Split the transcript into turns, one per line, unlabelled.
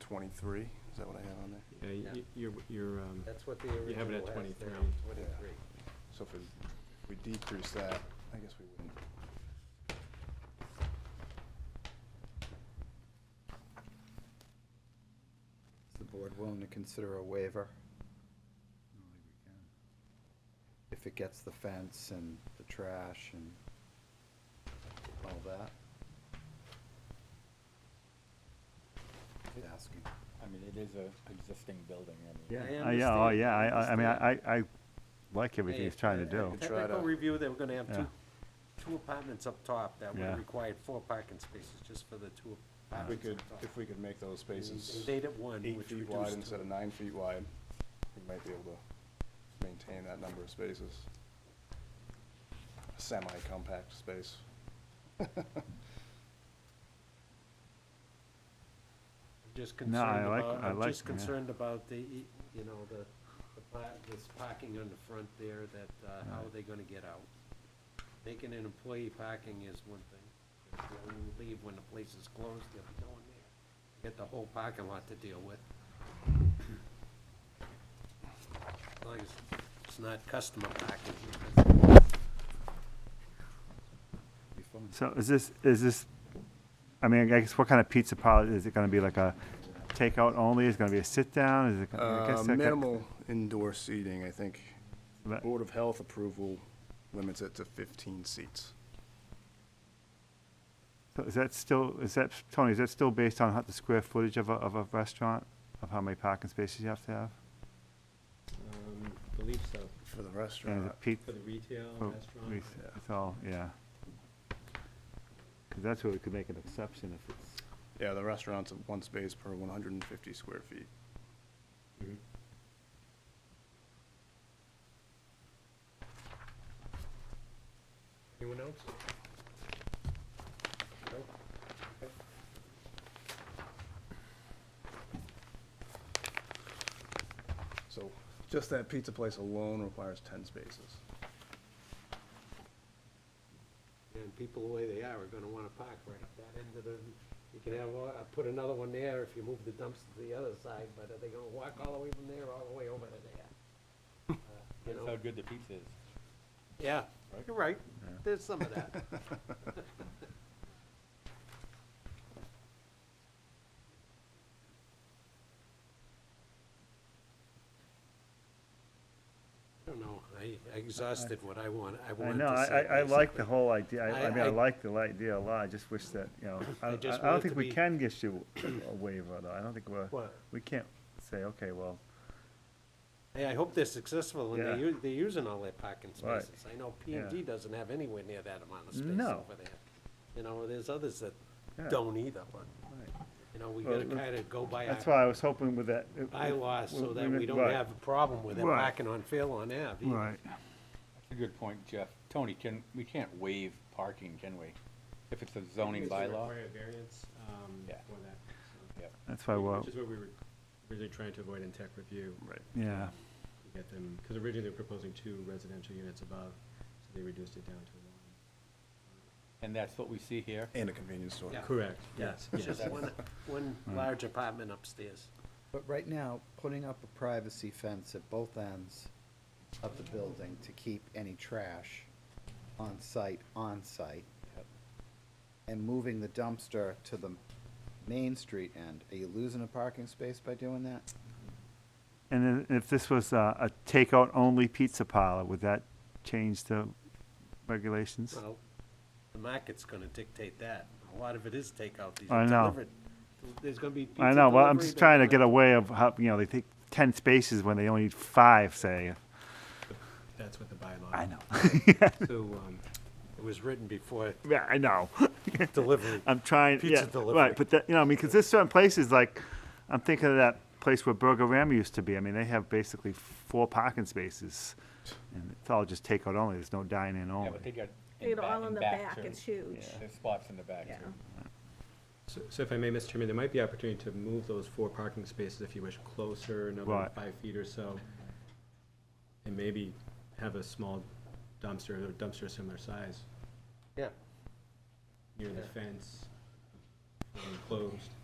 twenty-three, is that what I have on there?
Yeah, y-
Yeah.
y- you're, you're, um,
That's what the
You have it at
original has there,
23.
twenty-three.
So if we- we decrease that, I guess we wouldn't.
Is the board willing to consider a waiver if it gets the fence and the trash and all that? Just Asking.
I mean, it is a existing building, I mean.
Yeah. I
Uh, Yeah, oh,
understand,
yeah,
I
I, I, I mean, I,
understand.
I I like everything he's trying to do.
could try
Technical
to-
review, they were gonna have two,
Yeah.
two apartments up top that would
Yeah.
require four parking spaces just for the
If
two
we
apartments
could,
up top.
if we could make those
They
spaces
stayed at one,
eight
which
feet wide
reduced
instead
to,
of nine feet wide, we might be able to maintain that number of spaces. Semi-compact space.
just
No, I
concerned
like-
about,
I
I'm
like-
just
yeah.
concerned about the, e- you know, the, the par- this parking on the front there that, uh, how are they gonna get out? Making an employee parking is one thing. If they leave when the place is closed, they'll be going there. Get the whole parking lot to deal with. As long as it's not customer parking.
Be fun.
So is this, is this, I mean, I guess what kind of pizza parlor, is it gonna be like a takeout only, is it gonna be a sit-down, is it? gonna- I guess
Uh,
that-
Minimal indoor seating, I think.
That-
Board of Health approval limits it to fifteen seats.
so Is that still, is that, Tony, is that still based on how the square footage of a, of a restaurant? Of how many parking spaces you have to have?
um, believe so,
For the
And the
restaurant,
pizza?
for the retail
Oh,
restaurant.
we- It's all, yeah. 'Cause that's where we could make an exception if it's,
yeah, the restaurant's at one space per one hundred and fifty square feet.
Mhm.
Anyone else? No? Okay.
So just that pizza place alone requires ten spaces.
And people the way they are are gonna wanna park right up that end of the, you can have, uh, put another one there if you move the dumpster to the other side, but are they gonna walk all the way from there, all the way over to there? Uh, You
That's how
know,
good the pizza is.
yeah, you're right, there's some of that. I don't know, I I exhausted what I want, I
I
wanted to
know, I,
say,
I- I like
basically.
the whole idea, I,
I-
I mean, I
I-
like the idea a lot, I just wish that, you know, I,
I
I
just
I
want it
don't think
to
we
be-
can get you a waiver, though, I don't think we're,
What?
we can't say, okay, well,
Hey, I hope they're successful and they're,
Yeah.
u- they're using all their parking
Right.
spaces. I know P and G
Yeah.
doesn't have anywhere near that amount of space
No.
over there. You know, there's others that
Yeah.
don't either, but,
right.
you know, we
Well,
gotta
let's-
kinda go by
that's
our
why I was hoping with that. it-
bylaws so
we-
that
we-
we don't
right,
have a problem with them
Right.
parking on Fairlawn Ave. either.
Right,
That's a good point, Jeff. Tony, can, we can't waive parking, can we? If it's a zoning
It's a
bylaw?
required variance, um,
Yeah.
for that, so-
Yep.
that's why, well,
Which is what we were originally trying to avoid in tech review.
Right.
yeah,
to Get them, because originally they were proposing two residential units above, so they reduced it down to one.
And that's what we see here?
And a convenience store.
Yeah.
Correct, yes,
It's
yes.
Just one, one large apartment upstairs.
But right now, putting up a privacy fence at both ends of the building to keep any trash on site, on site, and moving the dumpster to the main street end, are you losing a parking space by doing that?
and then if this was a, a takeout-only pizza parlor, would that change the regulations?
Well, the market's gonna dictate that. A lot of it is takeout. These
I
are
know.
delivered. There's gonna be pizza
I know, well, I'm
delivery,
just
they're
trying to
gonna-
get away of how, you know, they take ten spaces when they only need five, say,
That's what the bylaw.
I know,
So, um,
It was written before
yeah, I know.
delivery.
I'm trying.
Pizza
yeah,
delivery.
Right, but that, you know, I mean, because there's certain places like, I'm thinking of that place where Burger Ram used to be. I mean, they have basically four parking spaces, and it's all just takeout only. There's no dine-in
Yeah,
only.
but they got. in
You
ba-
all in the back,
too.
it's huge.
There's spots in the back
Yeah.
too.
so so if I may, Mr. Chairman, there might be opportunity to move those four parking spaces, if you wish, closer, another
Right.
five feet or so. And maybe have a small dumpster, or dumpster similar size,
Yeah.
near the fence, enclosed.